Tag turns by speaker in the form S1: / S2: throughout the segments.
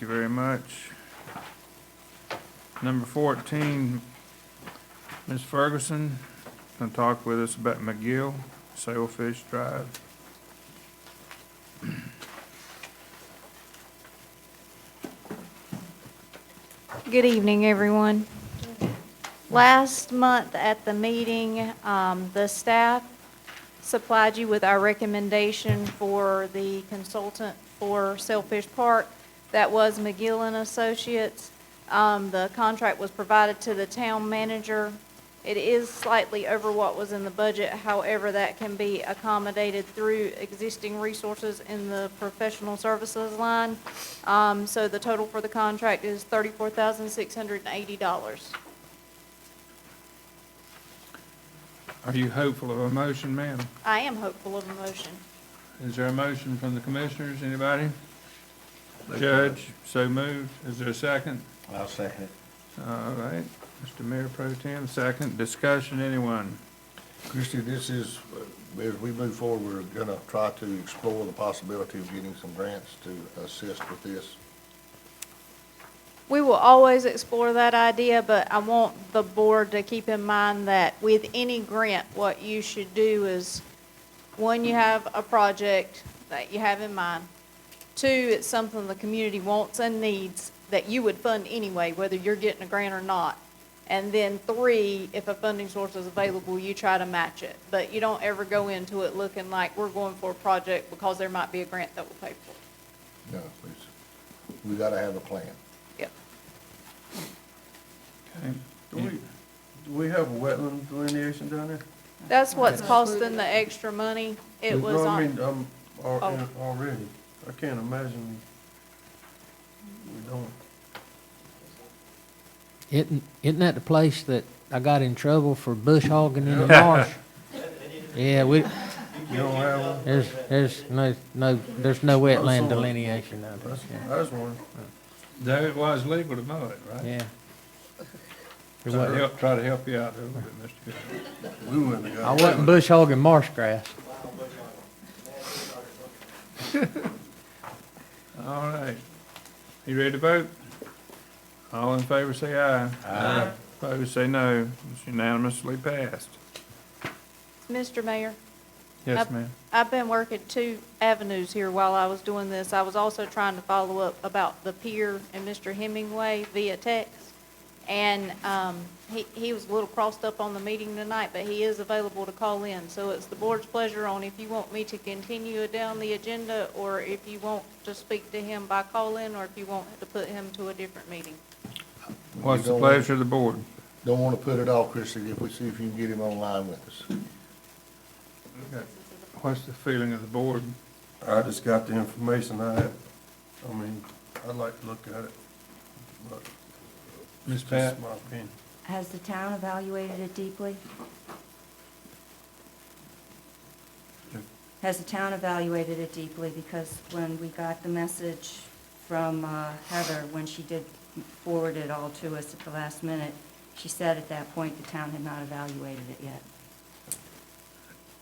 S1: you very much. Number fourteen, Ms. Ferguson, gonna talk with us about McGill Sailfish Drive.
S2: Good evening, everyone. Last month at the meeting, um, the staff supplied you with our recommendation for the consultant for Sailfish Park. That was McGill and Associates. Um, The contract was provided to the town manager. It is slightly over what was in the budget, however, that can be accommodated through existing resources in the professional services line. Um, So the total for the contract is thirty-four thousand six hundred and eighty dollars.
S1: Are you hopeful of a motion, ma'am?
S2: I am hopeful of a motion.
S1: Is there a motion from the commissioners, anybody? Judge, so moved. Is there a second?
S3: I'll second it.
S1: All right, Mr. Mayor Pro Tem, second. Discussion, anyone?
S3: Christie, this is, uh, as we move forward, we're gonna try to explore the possibility of getting some grants to assist with this.
S2: We will always explore that idea, but I want the board to keep in mind that with any grant, what you should do is, one, you have a project that you have in mind. Two, it's something the community wants and needs that you would fund anyway, whether you're getting a grant or not. And then three, if a funding source is available, you try to match it. But you don't ever go into it looking like we're going for a project because there might be a grant that will pay for it.
S3: No, please. We gotta have a plan.
S2: Yep.
S1: Okay.
S4: Do we, do we have a wetland delineation down there?
S2: That's what's costing the extra money. It
S4: No,
S2: was
S4: I
S2: on,
S4: mean, um, al-
S2: Oh.
S4: already, I can't imagine we don't.
S5: Isn't, isn't that the place that I got in trouble for bush hogging in the marsh? Yeah, we,
S4: You don't have one?
S5: there's, there's no, no, there's no wetland delineation out there.
S4: That's, that's one.
S1: Though it was legal to mow it, right?
S5: Yeah. It
S1: Try to
S5: wasn't-
S1: help, try to help you out a little bit, Mr. Goodwin.
S4: We wouldn't have
S5: I
S4: got
S5: wasn't bush hogging marsh grass.
S1: All right. You ready to vote? All in favor, say aye. Aye. Opposed, say no. It's unanimously passed.
S2: Mr. Mayor,
S1: Yes,
S2: Yep.
S1: ma'am.
S2: I've been working two avenues here while I was doing this. I was also trying to follow up about the pier and Mr. Hemingway via text. And um, he, he was a little crossed up on the meeting tonight, but he is available to call in. So it's the board's pleasure on if you want me to continue it down the agenda or if you want to speak to him by call-in or if you want to put him to a different meeting.
S1: What's the
S3: Don't-
S1: pleasure of the board?
S3: Don't wanna put it off, Christie, if we see if you can get him online with us.
S1: What's the feeling of the board?
S4: I just got the information I had. I mean, I'd like to look at it, but
S1: Ms.
S4: it's
S1: Pat?
S4: just my opinion.
S6: Has the town evaluated it deeply? Has the town evaluated it deeply? Because when we got the message from uh, Heather, when she did forward it all to us at the last minute, she said at that point the town had not evaluated it yet.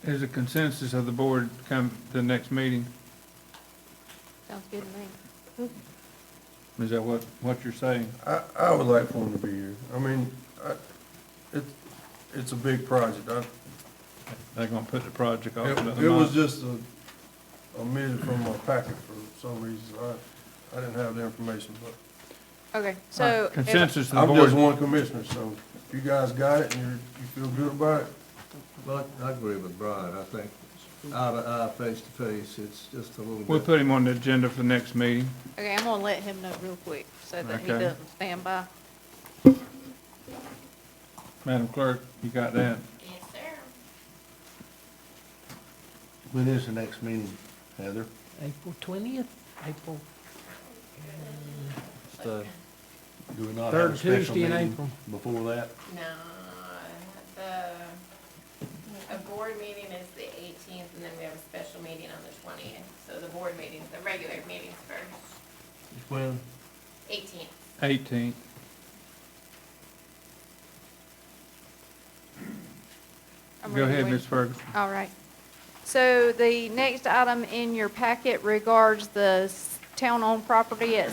S1: Is a consensus of the board come to the next meeting?
S2: Sounds good to me.
S1: Is that what, what you're saying?
S4: I, I would like for him to be here. I mean, I, it, it's a big project. I,
S1: They're gonna put the project off
S4: It
S1: another
S4: it was
S1: month?
S4: just a, a minute from my packet for some reason. I, I didn't have the information, but
S2: Okay, so. if-
S1: Consensus of the
S4: I'm just
S1: board,
S4: one commissioner, so if you guys got it and you're, you feel good about it,
S7: Well, I agree with Brian. I think eye to eye, face to face, it's just a little bit.
S1: we'll put him on the agenda for the next meeting.
S2: Okay, I'm gonna let him know real quick so that he
S1: Okay.
S2: doesn't stand by.
S1: Madam Clerk, you got that?
S3: When is the next meeting, Heather?
S5: April twentieth, April.
S3: Do we not
S5: have a Third special Tuesday in meeting April.
S3: Before that?
S8: No, the, a board meeting is the eighteenth, and then we have a special meeting on the twentieth. So the board meetings, the regular meetings first,
S4: when,
S8: eighteenth.
S1: Eighteenth.
S2: I'm
S1: Go
S2: ready
S1: ahead,
S2: when-
S1: Ms. Ferguson.
S2: All right. So the next item in your packet regards the s- town-owned property at